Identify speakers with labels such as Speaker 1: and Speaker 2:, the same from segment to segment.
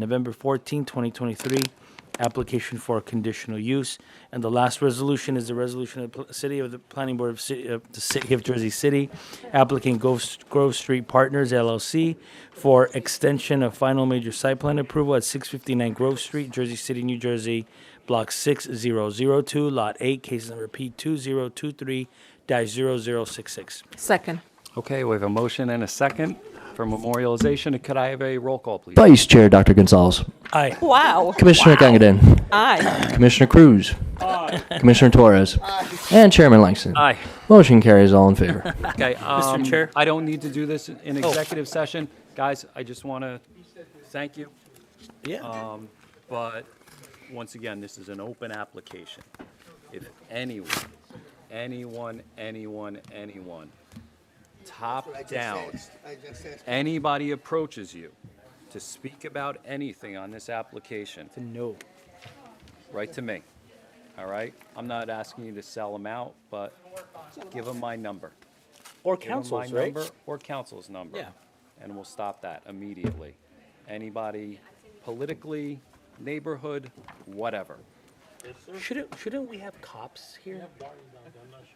Speaker 1: November 14, 2023, application for conditional use. And the last resolution is the resolution of the pl- City of the Planning Board of Ci- of the City of Jersey City, applicant Grove S- Grove Street Partners LLC for extension of final major site plan approval at 659 Grove Street, Jersey City, New Jersey, Block 6002, Lot 8, case number P2023-0066.
Speaker 2: Second.
Speaker 3: Okay, we have a motion and a second for memorialization. Could I have a roll call, please?
Speaker 4: Vice Chair Dr. Gonzalez.
Speaker 1: Aye.
Speaker 2: Wow.
Speaker 4: Commissioner Gangadin.
Speaker 2: Aye.
Speaker 4: Commissioner Cruz. Commissioner Torres. And Chairman Langston.
Speaker 3: Aye.
Speaker 4: Motion carries all in favor.
Speaker 3: Okay, um,
Speaker 1: Chair? Oh.
Speaker 3: I don't need to do this in executive session. Guys, I just want to thank you, Um,
Speaker 1: Yeah.
Speaker 3: but once again, this is an open application. If anyone, anyone, anyone, anyone, top down, anybody approaches you to speak about anything on this application,
Speaker 1: No.
Speaker 3: right to me. All right? I'm not asking you to sell them out, but give them my number.
Speaker 1: Or
Speaker 3: Give 'em my
Speaker 1: councils, right?
Speaker 3: number Or council's number.
Speaker 1: Yeah.
Speaker 3: And we'll stop that immediately. Anybody politically, neighborhood, whatever.
Speaker 1: Shouldn't, shouldn't we have cops here?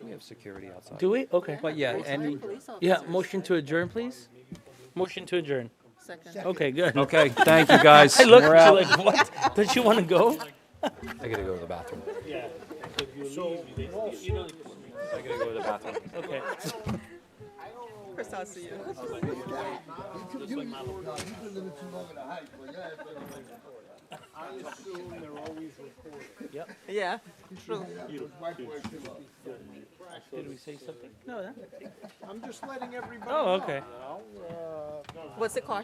Speaker 3: We have security outside.
Speaker 1: Do we? Okay.
Speaker 3: But yeah, any,
Speaker 1: Yeah, motion to adjourn, please. Motion to adjourn. Okay, good.
Speaker 3: okay, thank you, guys.
Speaker 1: I looked
Speaker 3: We're
Speaker 1: at
Speaker 3: out.
Speaker 1: you like, what? Don't you want to go?
Speaker 3: I gotta go to the bathroom. I gotta go to the bathroom.
Speaker 1: Okay.
Speaker 2: Chris, I'll see you.
Speaker 1: Yep.
Speaker 2: Yeah, true.
Speaker 1: Did we say something? No. that-
Speaker 5: I'm just letting everybody
Speaker 1: Oh, okay.
Speaker 5: know. uh,
Speaker 2: What's it cost?